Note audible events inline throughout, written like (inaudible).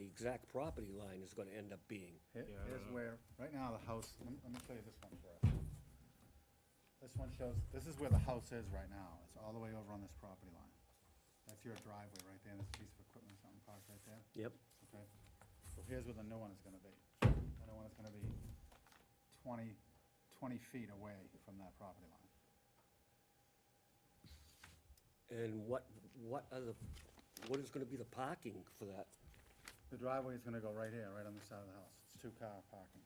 exact property line is gonna end up being. Here- Yeah, I Here's don't know. where, right now, the house, let me- let me show you this one for us. This one shows, this is where the house is right now. It's all the way over on this property line. That's your driveway right there, and this piece of equipment, something parked right there. Yep. Okay, so here's where the new one is gonna be. The new one is gonna be 20 20 feet away from that property line. And what, what are the, what is gonna be the parking for that? The driveway is gonna go right here, right on the side of the house. It's two-car parking.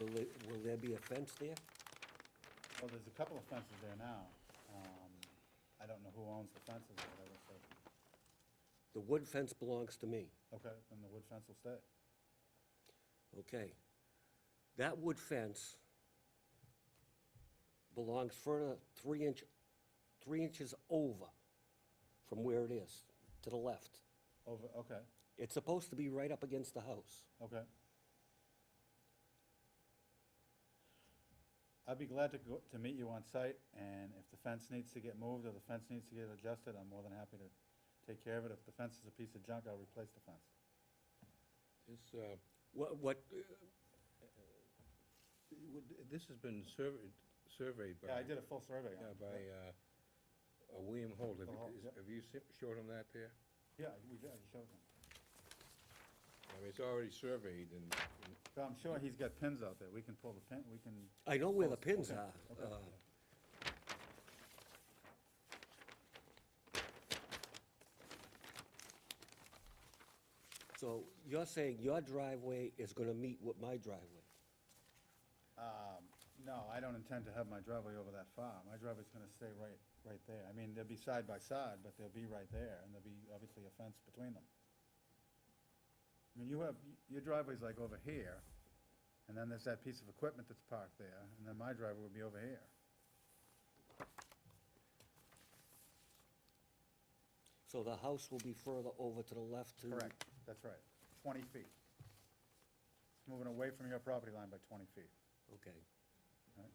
Will there, will there be a fence there? Well, there's a couple of fences there now. Um, I don't know who owns the fences or whatever, so, The wood fence belongs to me, okay, then the wood fence will stay. okay? That wood fence belongs further, three inch, three inches over from where it is, to the left. Over, okay, It's supposed to be right up against the house. okay. I'd be glad to go, to meet you on site, and if the fence needs to get moved or the fence needs to get adjusted, I'm more than happy to take care of it. If the fence is a piece of junk, I'll replace the fence. This, uh, What, what, uh, would- this has been surveyed, surveyed by. Yeah, I did a full survey on yeah, it. by, uh, uh, William Holt. Have Oh, Holt, you, yeah. is- have you se- showed him that there? Yeah, we did, I showed them. I mean, it's already surveyed and, and So I'm sure he's got pins out there. We can pull the pin, we can, I know where the Close, pins okay, are. okay. uh, So you're saying your driveway is gonna meet with my driveway? um, no, I don't intend to have my driveway over that far. My driveway's gonna stay right, right there. I mean, they'll be side by side, but they'll be right there, and there'll be obviously a fence between them. I mean, you have, your driveway's like over here, and then there's that piece of equipment that's parked there, and then my driveway would be over here. So the house will be further over to the left to? Correct, that's right. Twenty feet. It's moving away from your property line by twenty feet. Okay. Alright.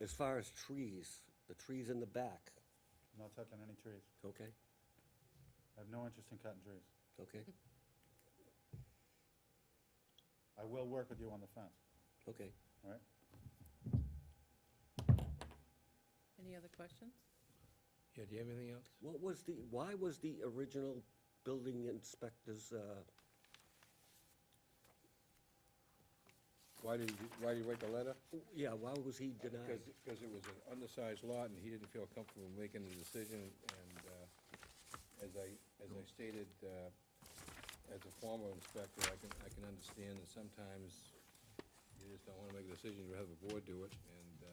As far as trees, the trees in the back, I'm not touching any trees. okay, I have no interest in cutting trees. (laughs) okay, I will work with you on the fence, okay. all right? Any other questions? Yeah, do you have anything else? What was the, why was the original building inspector's, uh, Why did you, why did you write the letter? yeah, why was he denied? Because, because it was an undersized lot and he didn't feel comfortable making the decision and, uh, as I, as I stated, uh, as a former inspector, I can, I can understand that sometimes you just don't wanna make a decision, you'd rather the board do it, and, uh,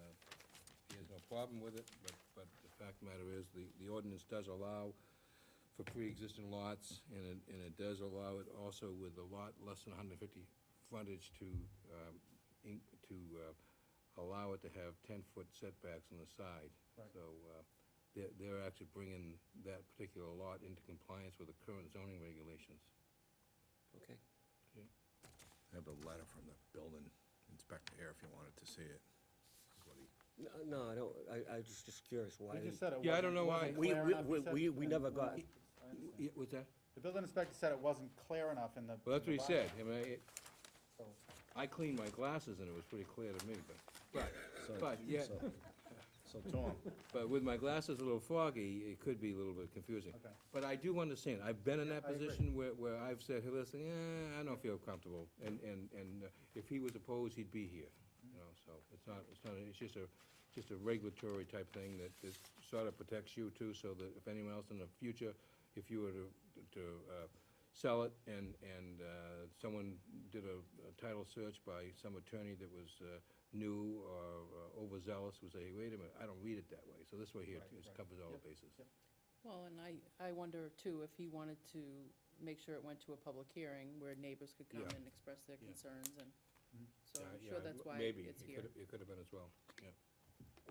he has no problem with it, but, but the fact of the matter is, the, the ordinance does allow for pre-existing lots, and it, and it does allow it also with a lot less than hundred and fifty frontage to, um, in, to, uh, allow it to have ten-foot setbacks on the side. Right. So, uh, they're, they're actually bringing that particular lot into compliance with the current zoning regulations. Okay. I have a letter from the building inspector here if you wanted to see it. That's what he- No, No, I don't, I, I was just curious why. We just said it Yeah, I don't wasn't- wasn't know why- We- clear we- enough. we- He said- we- we never got- I understand. Yeah, what's that? The building inspector said it wasn't clear enough in the. Well, that's what in he the said, bylaw, I mean, it, so- I cleaned my glasses and it was pretty clear to me, but, but, but, yeah, So- So, Tom, but with my glasses a little foggy, it could be a little bit confusing. Okay. But I do understand, I've been in that I agree. position where, where I've said, hey, listen, eh, I don't feel comfortable, and, and, and uh, if he was opposed, he'd be here, you know, so, it's not, it's not, it's just a, just a regulatory type thing that, that sort of protects you too, so that if anyone else in the future, if you were to, to, uh, sell it, and, and, uh, someone did a a title search by some attorney that was, uh, new or uh, overzealous, would say, wait a minute, I don't read it that way, so this way here, Right, it right. covers all Yep, the bases. yep. Well, and I, I wonder too, if he wanted to make sure it went to a public hearing where neighbors could come Yeah. and express their Yeah. concerns and, Mhm. so Yeah, I'm yeah, sure that's why Maybe, it's it here. could, it could have been as well, yeah.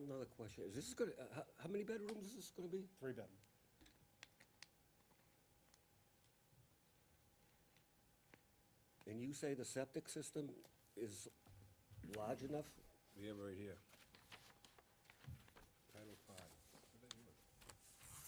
Another question, is this gonna, uh, how, how many bedrooms is this gonna be? Three bedroom. And you say the septic system is large enough? We have it right here.